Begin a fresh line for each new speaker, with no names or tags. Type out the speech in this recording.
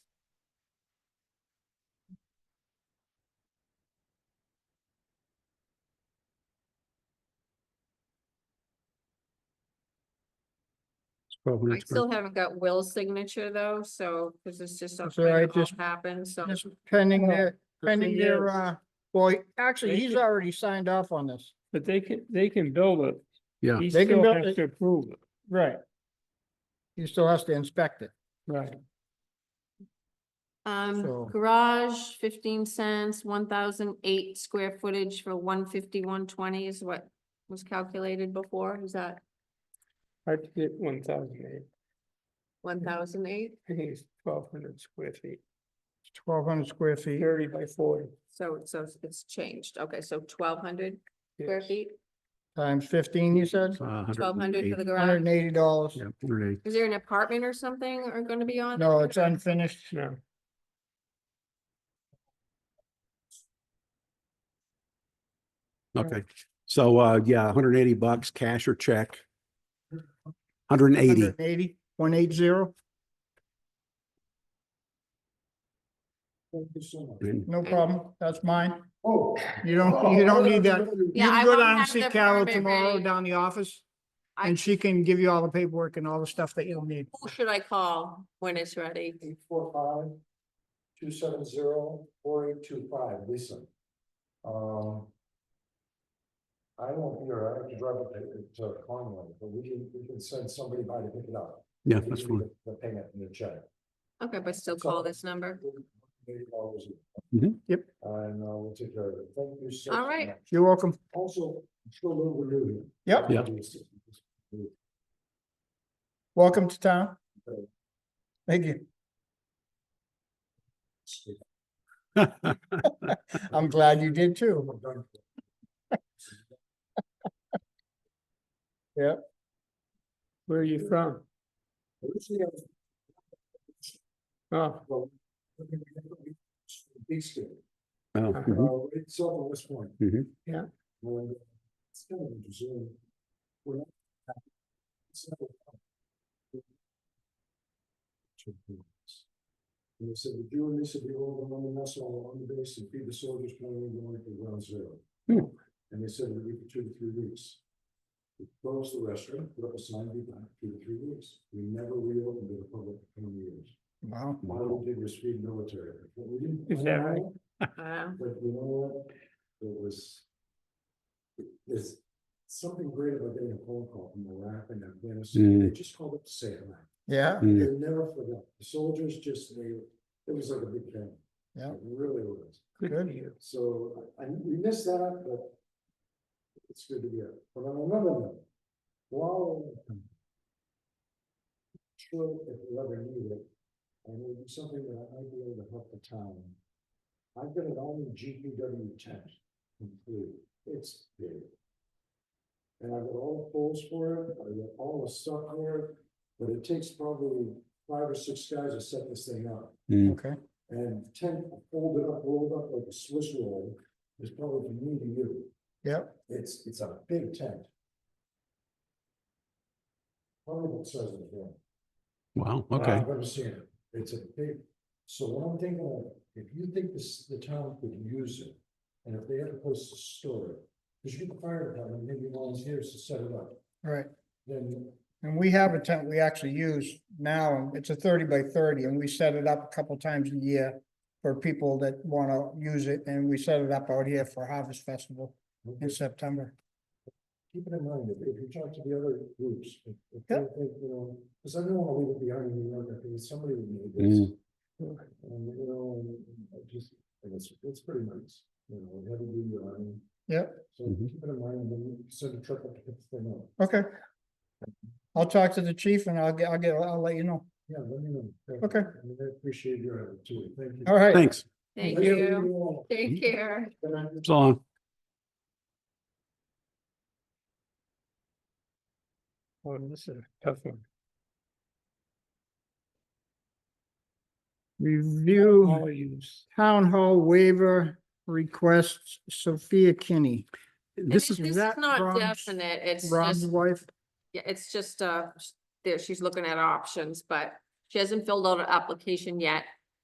Twelve
I
minutes.
still haven't got Will's signature though, so, cause it's just
That's
something
all right,
that all
just-
happened, so.
Just pending
Well,
their,
the
pending
thing
their,
is-
uh, well, actually,
They
he's
should-
already signed off on this.
But they can, they can build it.
Yeah.
He
They can
still
build
has
it.
to approve it.
Right. He still has to inspect it.
Right.
So-
Um, garage fifteen cents, one thousand eight square footage for one fifty, one twenty is what was calculated before, is that
Hard to get one thousand eight.
one thousand eight?
I think it's twelve hundred square feet,
Twelve hundred square feet.
thirty by forty.
So, so it's changed, okay, so twelve hundred square
Yes.
feet,
Times fifteen, you said?
twelve hundred for the
Hundred
garage?
and eighty dollars.
Uh, Yeah, hundred and eighty.
Is there an apartment or something are gonna be on?
No, it's unfinished.
No,
Okay, so, uh, yeah, hundred and eighty bucks, cash or check. Hundred and eighty,
Eighty, one eight zero,
and
no problem. That's mine.
Oh.
You don't, you don't need that. You
Yeah, I
can go
won't
down and
have
see
the
Carol
permit
tomorrow
ready.
down the office.
I-
And she can give you all the paperwork and all the stuff that you'll need.
Who should I call when it's ready?
Eight four five, two seven zero, four eight two five, Lisa. Um. I won't be here, I have to drive up to to Conway, but we can, we can send somebody by to pick it up.
yeah,
We
that's fine.
can do The the payment and the check.
Okay, but still call this number.
Eight dollars.
Mhm.
Yep.
And uh, we'll take care of it, thank you so.
All right.
much.
You're welcome.
Also, I'm sure Lou will do
Yep,
Yeah.
it.
welcome to town. Thank you.
Oh,
I'm glad you did too.
where are you from?
Originally, I was
Oh,
Well, East End,
Oh,
uh,
mhm.
right south of West Point.
Mhm.
Yeah.
And It's kind of interesting. We're not- it's not a- Two points. And they said, if you and this, if you all the one vessel on the base and feed the soldiers playing going to ground zero.
Hmm.
And they said, it'd be for two to three weeks. We closed the restaurant, put up a sign, be back two to three weeks. We never reopened to the public for twenty years.
Wow.
All we did was feed military. What we didn't
Is that
plan
right?
out,
Uh,
But you know what? It was. There's something great about getting a phone call from Iraq and Afghanistan. They just called up to say hi.
Yeah,
Mm.
They never forgot. The soldiers just, they, it was like a big family.
Yeah.
It really was.
good
Good.
for you.
So I, I- we missed that, but. It's good to be here. But on another note, wow. Sure, if you ever need it, and it'll be something that I might be able to help the town. I've got an army GPW tent complete. It's big. And I've got all the poles for it, I've got all the stuff for it, but it takes probably five or six guys to set this thing up.
Mm.
okay.
And tent folded up, rolled up like a Swiss roll, is probably from me to you.
Yep,
It's, it's a big tent. Probably what size it is.
Wow, okay,
I've never seen it. It's a big, so what I'm thinking of, if you think this, the town could use it, and if they had a place to store it, because you can fire department, maybe volunteers to set it up,
right.
then
And we have a tent we actually use now, and it's a thirty by thirty, and we set it up a couple times a year for people that wanna use it, and we set it up out here for Harvest Festival in September.
keep it in mind, if, if you talk to the other groups, if, if they think, you know, because I don't want to leave it behind in New York, I think somebody would need this. And, you know, and I just, and it's, it's pretty nice, you know, have a good run.
Yep.
So
Mhm.
keep it in mind, and then you send a truck up to pick the thing up.
Okay. I'll talk to the chief and I'll get, I'll get, I'll let you know.
Yeah, let me know. Thank you.
Okay.
I mean, I appreciate your attitude, thank you.
All right,
thanks,
thank
Nice to meet
you.
all.
Take care.
Good night.
so uh, long.
Oh, this is a tough one.
review
All use.
town hall waiver requests Sophia Kinney,
And
This
it-
is,
is
This is
that
not
Rob's-
definite, it's
Rob's
just,
wife.
yeah, it's just, uh, sh- there, she's looking at options, but she hasn't filled out an application yet.